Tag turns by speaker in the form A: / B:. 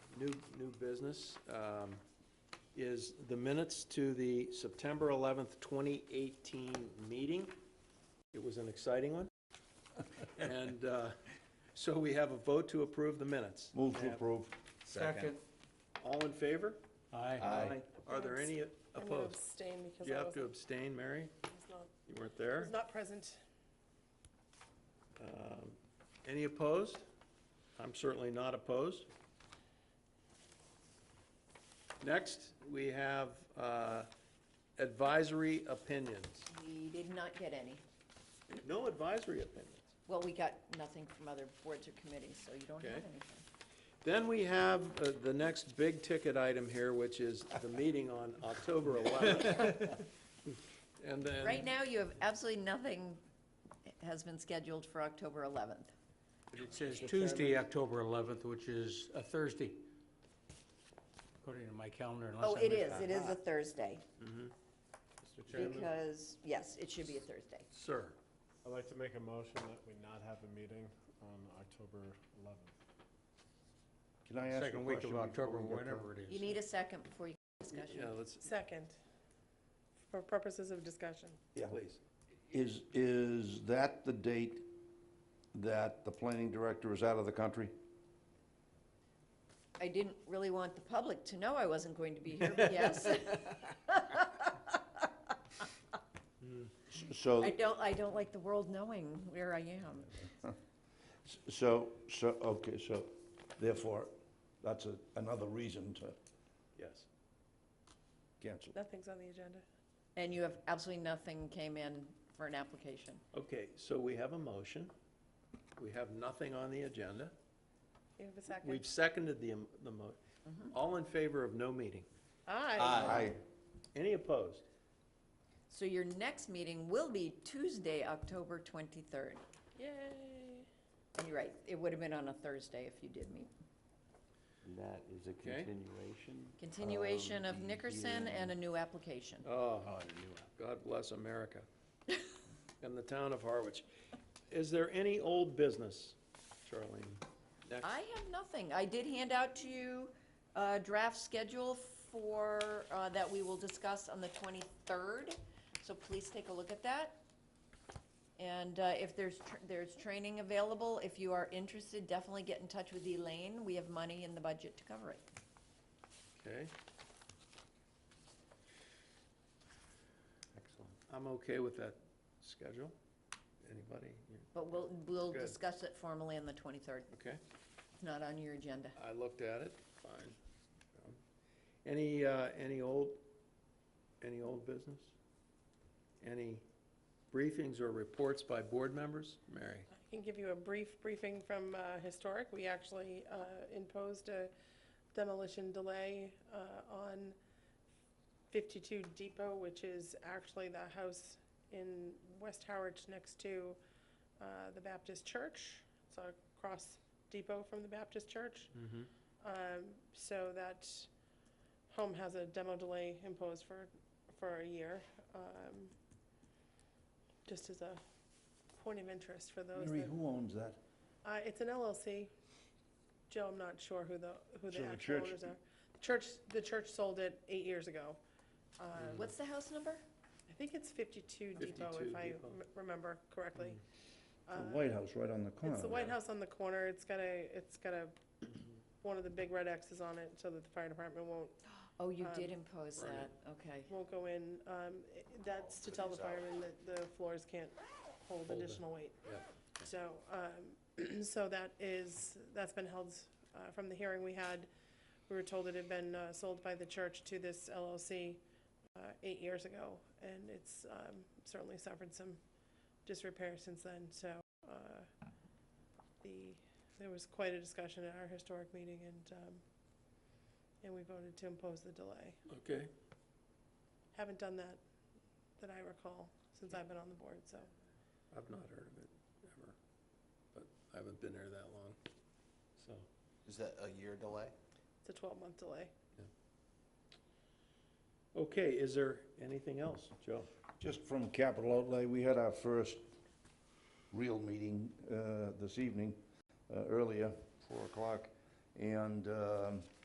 A: new, new business um, is the minutes to the September 11th, 2018 meeting. It was an exciting one. And uh, so we have a vote to approve the minutes.
B: Move to approve.
C: Second.
A: All in favor?
B: Aye.
A: Are there any
D: I'm going to
A: opposed?
D: abstain
A: Do
D: because
A: you
D: I
A: have
D: was
A: to abstain, Mary?
D: was not-
A: You weren't
D: I
A: there?
D: was not present.
A: Um, Any opposed? I'm certainly not opposed. Next, we have uh, advisory opinions.
E: We did not get any.
A: No advisory opinions.
E: Well, we got nothing from other boards or committees, so you don't have
A: Okay.
E: anything.
A: Then we have uh, the next big ticket item here, which is the meeting on October 11th. And then.
E: Right now, you have absolutely nothing has been scheduled for October 11th.
C: It says Tuesday, October 11th, which is a Thursday, according to my calendar, unless I
E: Oh, it
C: missed
E: is,
C: that.
E: it is a Thursday,
A: Mm-hmm.
F: Mr. Chairman,
E: because, yes, it should be a Thursday.
A: Sir,
F: I'd like to make a motion that we not have a meeting on October 11th.
B: Can I ask a
C: Second week of
B: question
C: October,
B: before we get
C: whatever it
E: You
C: is.
E: need a second before you discuss.
A: yeah, let's,
D: Second, for purposes of discussion.
B: Yeah.
A: please.
B: Is, is that the date that the planning director is out of the country?
E: I didn't really want the public to know I wasn't going to be here, but yes.
B: S- So,
E: I don't, I don't like the world knowing where I am.
B: so, so, okay, so therefore, that's a- another reason to
A: Yes.
B: cancel.
D: Nothing's on the agenda.
E: And you have absolutely nothing came in for an application.
A: Okay, so we have a motion. We have nothing on the agenda.
D: You have a
A: We've
D: second?
A: seconded the, am- the mo, all in favor of no meeting.
D: Aye.
B: Aye.
A: Any opposed?
E: So your next meeting will be Tuesday, October 23rd.
D: Yay.
E: And you're right, it would have been on a Thursday if you did meet.
G: That is a
A: Okay.
G: continuation.
E: Continuation of
G: Um,
E: Nickerson
G: hearing.
E: and a new application.
A: Oh, God bless America and the town of Harwich. Is there any old business, Charlene? Next,
E: I have nothing. I did hand out to you a draft schedule for, uh, that we will discuss on the 23rd, so please take a look at that. And uh, if there's, tr- there's training available, if you are interested, definitely get in touch with Elaine. We have money in the budget to cover it.
A: okay,
G: Excellent.
A: I'm okay with that schedule. Anybody? You-
E: But we'll, we'll
A: Good.
E: discuss it formally on the 23rd.
A: Okay,
E: It's not on your agenda.
A: I looked at it, fine. Um, Any, uh, any old, any old business? Any briefings or reports by board members? Mary?
D: I can give you a brief briefing from uh, Historic. We actually uh, imposed a demolition delay uh, on 52 Depot, which is actually the house in West Howard next to uh, the Baptist Church. It's across Depot from the Baptist Church. Um, So that home has a demo delay imposed for, for a year. um, Just as a point of interest for those
B: Mary,
D: that.
B: who owns that?
D: Uh, it's an LLC. Joe, I'm not sure who the, who
B: So
D: the
B: the
D: actual
B: church-
D: owners are. The church, the church sold it eight years ago. Um,
B: Mm-hmm.
E: What's the house number?
D: I think it's fifty-two Depot,
A: 52
D: if I
A: Depot.
D: m- remember correctly.
B: The
D: Uh,
B: Mm-hmm. White House, right on the corner.
D: It's the White House on the corner. It's got a, it's got a, one of the big red X's on it so that the fire department won't,
E: Oh, you
D: Um,
E: did impose
A: Right.
E: that, okay.
D: won't go in. Um, i- that's to tell the firemen that the floors can't hold
A: Hold it.
D: additional weight.
A: Yeah.
D: So, um, so that is, that's been held, uh, from the hearing we had, we were told it had been, uh, sold by the church to this LLC, uh, eight years ago, and it's, um, certainly suffered some disrepair since then, so, uh, the, there was quite a discussion at our historic meeting, and, um, and we voted to impose the delay.
A: Okay.
D: Haven't done that, that I recall, since I've been on the board, so.
A: I've not heard of it ever, but I haven't been there that long, so.
H: Is that a year delay?
D: It's a twelve-month delay.
A: Okay, is there anything else, Joe?
B: Just from Capital Outlay, we had our first real meeting uh, this evening, uh, earlier, 4 o'clock, and um,